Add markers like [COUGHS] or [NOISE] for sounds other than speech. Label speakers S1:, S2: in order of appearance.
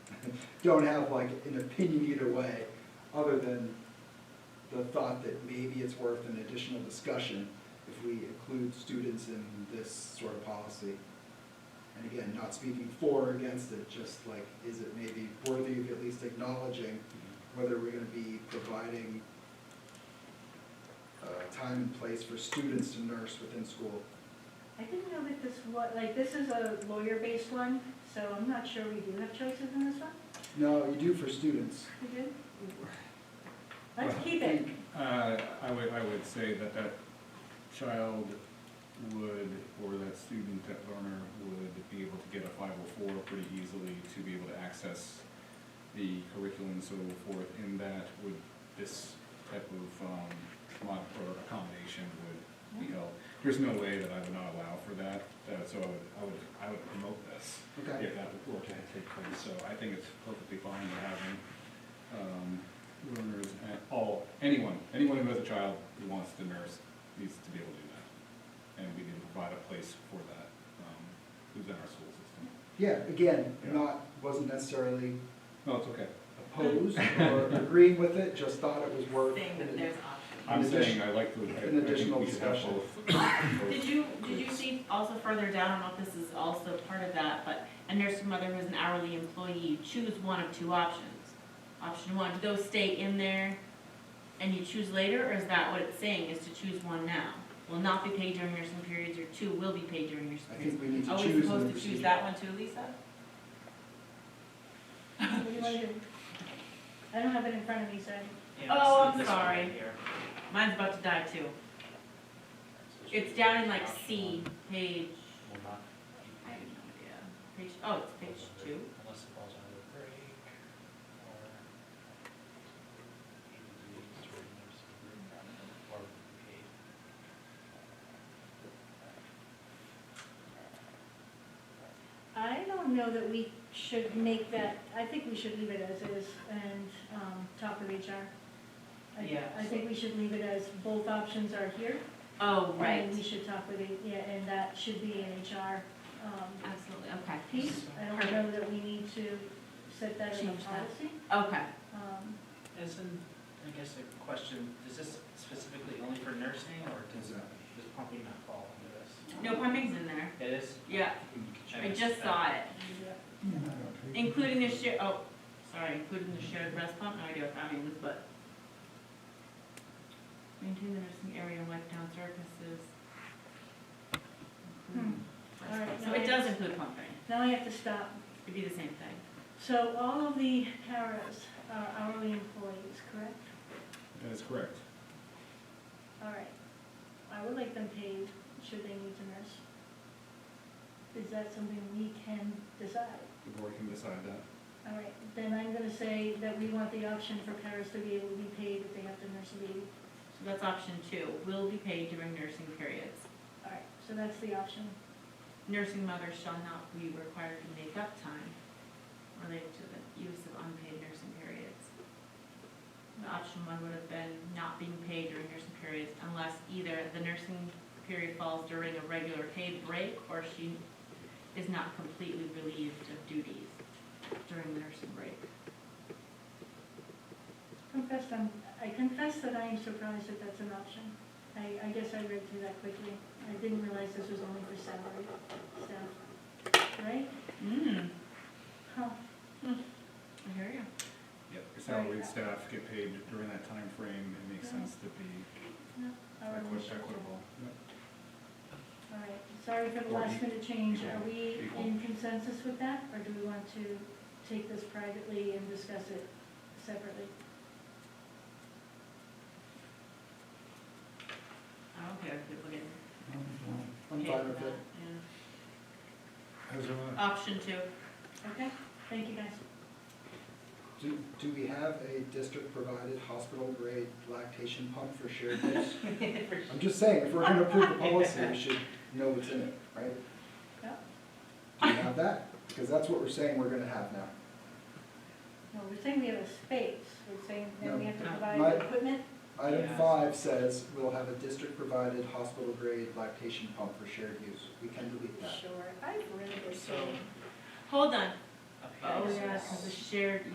S1: [LAUGHS] don't have like an opinion either way, other than the thought that maybe it's worth an additional discussion if we include students in this sort of policy. And again, not speaking for or against it, just like, is it maybe worthy of at least acknowledging whether we're gonna be providing uh, time and place for students to nurse within school?
S2: I didn't know that this was, like, this is a lawyer-based one, so I'm not sure we do have choices in this one.
S1: No, you do for students.
S2: We do? Let's
S1: [LAUGHS]
S2: keep it.
S3: Uh, I would, I would say that that child would, or that student, that learner would be able to get a five oh four pretty easily to be able to access the curriculum and so forth, and that would, this type of, um, mod, or accommodation would be held. There's no way that I would not allow for that, that, so I would, I would, I would promote this
S1: Okay.
S3: if that were to take place, so I think it's perfectly fine to have them um, learners, and all, anyone, anyone who has a child who wants to nurse needs to be able to do that. And we need to provide a place for that, um, within our school system.
S1: Yeah, again,
S3: Yeah.
S1: not, wasn't necessarily
S3: No, it's okay.
S1: opposed or agreeing with it, just thought it was worth.
S4: saying that there's options.
S3: I'm
S1: An addition-
S3: saying I like to, I- I
S1: an
S3: think
S1: additional
S3: we should have
S1: discussion.
S3: both. both
S4: [COUGHS] Did you, did you see also further down, I don't know if this is also part of that, but a nursing mother who's an hourly employee, choose one of two options. Option one, those stay in there and you choose later, or is that what it's saying, is to choose one now? Will not be paid during nursing periods, or two will be paid during nursing
S1: I
S4: periods.
S1: think we need to
S4: Are
S1: choose.
S4: we
S1: in the
S4: supposed to choose
S1: procedure.
S4: that one too, Lisa?
S2: What do you wanna do? I don't have it in front of me, so.
S5: Yeah,
S4: Oh,
S5: it's
S4: I'm
S5: this one
S4: sorry.
S5: right here.
S4: Mine's about to die too. It's down in like C, page,
S5: Will not
S4: I
S5: be
S4: have no
S5: paid
S4: idea, page, oh, it's page two.
S5: Unless it falls under the break or. Agencies or nursing group or paid.
S2: I don't know that we should make that, I think we should leave it as is and um, talk with HR. I-
S4: Yeah.
S2: I think we should leave it as both options are here.
S4: Oh, right,
S2: And we should talk with, it, yeah, and that should be an HR um,
S4: absolutely, okay.
S2: piece. I don't know that we need to set that in a
S4: Change that.
S2: policy.
S4: Okay,
S2: Um,
S5: Isn't, I guess a question, is this specifically only for nursing or does, does pumping not fall under this?
S4: no pumping's in there,
S5: It is?
S4: yeah, I just saw it,
S2: yeah.
S4: including the shared, oh, sorry, including the shared breast pump, no idea what that means, but. Maintain the nursing area and wipe down surfaces.
S2: Hmm. All right,
S4: So it does include pumping,
S2: Now I have to stop.
S4: it'd be the same thing.
S2: So all of the paras are hourly employees, correct?
S3: That is correct.
S2: All right. I would like them paid should they need to nurse. Is that something we can decide?
S3: The board can decide that.
S2: All right, then I'm gonna say that we want the option for paras to be able to be paid if they have to nurse a baby.
S4: So that's option two, will be paid during nursing periods.
S2: All right, so that's the option.
S4: Nursing mothers shall not be required to make up time related to the use of unpaid nursing periods. And Option one would have been not being paid during nursing periods unless either the nursing period falls during a regular paid break or she is not completely relieved of duties during the nursing break.
S2: Confess, I'm, I confess that I am surprised that that's an option. I, I guess I read through that quickly. I didn't realize this was only for salary staff, right?
S4: Mm,
S2: Huh,
S4: I hear you.
S3: Yep. Salaried staff get paid during that time frame. it makes sense to be
S2: no,
S4: Oh,
S2: I
S3: equi-
S2: wasn't sure.
S3: equitable.
S2: All right, sorry for the
S3: Or
S2: last
S3: equal.
S2: minute change. Are we
S3: Equal.
S2: in consensus with that, or do we want to take this privately and discuss it separately?
S4: I don't care if people get
S1: I'm
S4: paid
S1: fine with
S4: for
S1: it.
S4: that, yeah.
S3: How's everyone?
S4: Option two.
S2: Okay, thank you guys.
S1: Do, do we have a district-provided hospital-grade lactation pump for
S4: [LAUGHS]
S1: shared use? I'm just saying, if we're gonna approve a policy, we should know what's in it, right?
S2: Yeah.
S1: Do we have that? Because that's what we're saying we're gonna have now.
S2: No, we're saying we have a space, we're saying that we have to
S4: No.
S2: provide
S1: My-
S2: equipment.
S1: Item
S5: Yeah.
S1: five says we'll have a district-provided hospital-grade lactation pump for shared use. We can delete that.
S2: Sure, I've read
S5: So,
S4: Hold on,
S5: up here.
S4: Oh,
S5: it
S4: yeah,
S5: says-
S4: because the shared